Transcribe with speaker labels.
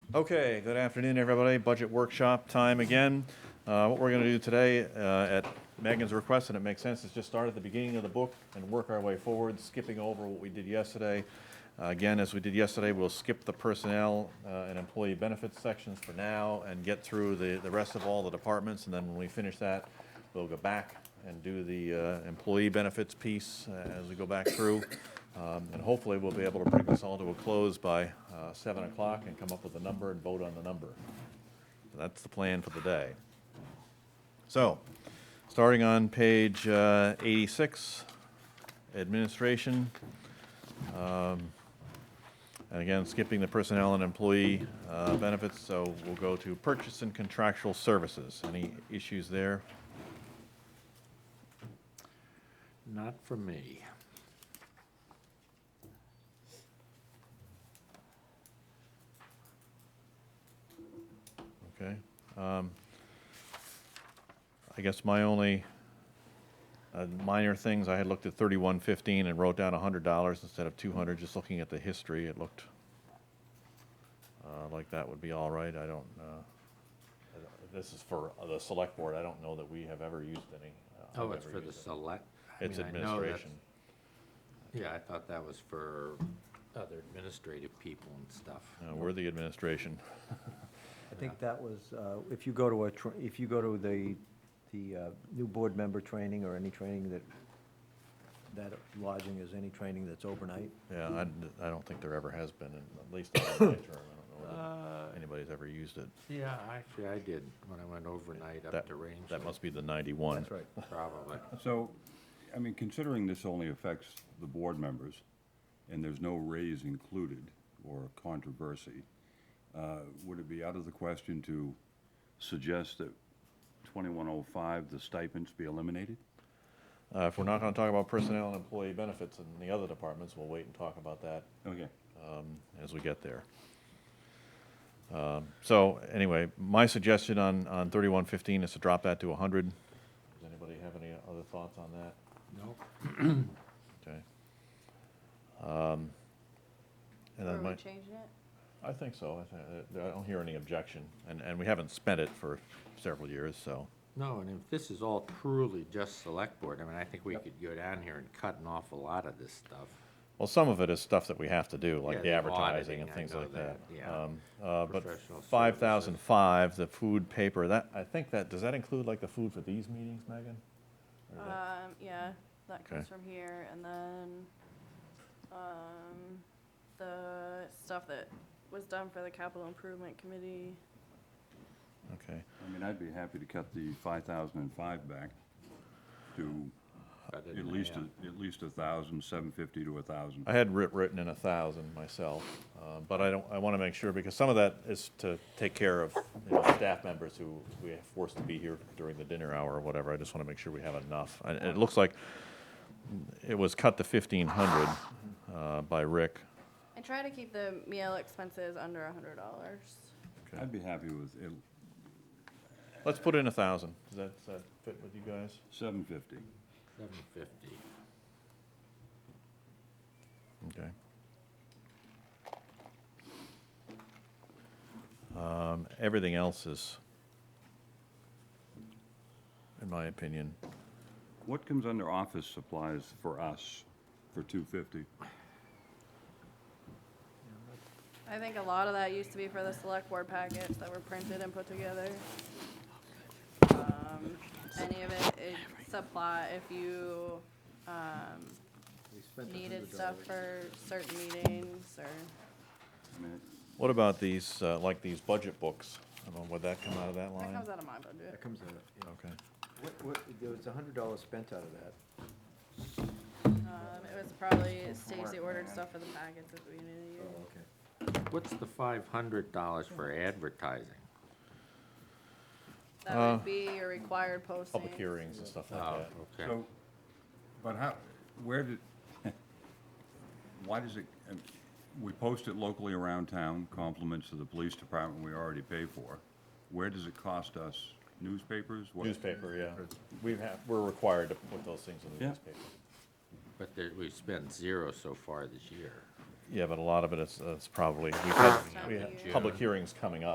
Speaker 1: Okay, good afternoon, everybody. Budget workshop time again. Uh, What we're going to do today, uh, at Megan's request, and it makes sense, is just start at the beginning of the book and work our way forward, skipping over what we did yesterday. Uh, Again, as we did yesterday, we'll skip the personnel uh, and employee benefits sections for now and get through the, the rest of all the departments. And then when we finish that, we'll go back and do the uh, employee benefits piece uh, as we go back through. Um, And hopefully, we'll be able to bring this all to a close by uh, 7 o'clock and come up with a number and vote on the number. That's the plan for the day. So, starting on page uh, 86, administration. Um, And again, skipping the personnel and employee uh, benefits, so we'll go to purchase and contractual services. Any issues there?
Speaker 2: Not for me.
Speaker 1: Okay. um, I guess my only uh, minor things, I had looked at thirty-one fifteen and wrote down hundred dollars instead of two hundred, just looking at the history, it looked uh, like that would be all right, I don't, uh, I don't- this is for the select board, I don't know that we have ever used any. uh, I've
Speaker 2: Oh, it's
Speaker 1: ever
Speaker 2: for the
Speaker 1: used it.
Speaker 2: select? I
Speaker 1: It's
Speaker 2: mean, I know that's-
Speaker 1: administration.
Speaker 2: Yeah, I thought that was for other administrative people and stuff.
Speaker 1: Uh, We're the administration.
Speaker 3: I think that was, uh, if you go to a, tr- if you go to the, the uh, new board member training or any training that, that lodging is any training that's overnight,
Speaker 1: Yeah, I, I don't think there ever has been, at least not in my term, I don't
Speaker 2: Uh,
Speaker 1: know that anybody's ever used it.
Speaker 2: Yeah, actually, I did, when I went overnight up
Speaker 1: That-
Speaker 2: to Rangeley.
Speaker 1: That must be the ninety-one.
Speaker 3: that's right.
Speaker 2: Probably.
Speaker 4: So, I mean, considering this only affects the board members, and there's no raise included or controversy, uh, would it be out of the question to suggest that 2105, the stipends be eliminated?
Speaker 1: Uh, If we're not going to talk about personnel and employee benefits in the other departments, we'll wait and talk about that
Speaker 4: Okay.
Speaker 1: um, as we get there. Um, So anyway, my suggestion on, on 3115 is to drop that to 100. Does anybody have any other thoughts on that?
Speaker 2: Nope.
Speaker 1: Okay. Um, And
Speaker 5: Are
Speaker 1: then my,
Speaker 5: we changing it?
Speaker 1: I think so. I thi- I don't hear any objection. And, and we haven't spent it for several years, so.
Speaker 2: No, and if this is all truly just select board, I mean, I think we could go down here and cut an awful lot of this stuff.
Speaker 1: Well, some of it is stuff that we have to do,
Speaker 2: Yeah,
Speaker 1: like the
Speaker 2: the
Speaker 1: advertising
Speaker 2: auditing,
Speaker 1: and
Speaker 2: I
Speaker 1: things
Speaker 2: know
Speaker 1: like that.
Speaker 2: that, yeah.
Speaker 1: Um, uh, But
Speaker 2: Professional
Speaker 1: five thousand five, the food paper, that, I think that, does that include like the food for these meetings, Megan? Or that-
Speaker 5: Um, yeah, that comes
Speaker 1: Okay.
Speaker 5: from here, and then, um, the stuff that was done for the capital improvement committee.
Speaker 1: Okay,
Speaker 4: I mean, I'd be happy to cut the 5,005 back to
Speaker 2: Cut it
Speaker 4: at
Speaker 2: in
Speaker 4: least,
Speaker 2: half.
Speaker 4: a- at least 1,000, 750 to 1,000.
Speaker 1: I had writ, written in a thousand myself, uh, but I don't, I want to make sure, because some of that is to take care of, you know, staff members who we have forced to be here during the dinner hour or whatever, I just want to make sure we have enough. And it looks like it was cut to fifteen hundred, uh, by Rick.
Speaker 5: I try to keep the meal expenses under a hundred dollars.
Speaker 1: Okay.
Speaker 4: I'd be happy with it-
Speaker 1: Let's put in a thousand. Does that, does that fit with you guys?
Speaker 4: 750.
Speaker 2: Seven fifty.
Speaker 1: Okay. Um, everything else is, in my opinion,
Speaker 4: What comes under office supplies for us for 250?
Speaker 5: I think a lot of that used to be for the select board packets that were printed and put together. Um, Any of it is supply, if you, um,
Speaker 3: We spent a
Speaker 5: needed
Speaker 3: hundred
Speaker 5: stuff
Speaker 3: dollars.
Speaker 5: for certain meetings or.
Speaker 4: I mean,
Speaker 1: what about these, uh, like these budget books? I mean, would that come out of that
Speaker 5: That
Speaker 1: line?
Speaker 5: comes out of my budget.
Speaker 3: That comes out, of- yeah.
Speaker 1: Okay.
Speaker 3: What, what, there was a hundred dollars spent out of that.
Speaker 5: Um, it was probably Stacy ordered stuff for the packets at the beginning of the year.
Speaker 3: Oh, okay.
Speaker 2: What's the five hundred dollars for advertising?
Speaker 5: That would be your required posting.
Speaker 1: Public hearings and stuff like
Speaker 2: Oh,
Speaker 1: that.
Speaker 2: okay.
Speaker 4: So, but how, where did, why does it, um, we post it locally around town, compliments to the police department we already pay for. Where does it cost us? Newspapers? What-
Speaker 1: Newspaper, yeah. We have, we're required to put those things in the
Speaker 4: Yeah.
Speaker 1: newspaper.
Speaker 2: But there, we've spent zero so far this year.
Speaker 1: Yeah, but a lot of it is, is probably, we had, we
Speaker 5: Time
Speaker 1: had
Speaker 5: of year.
Speaker 1: public hearings coming up.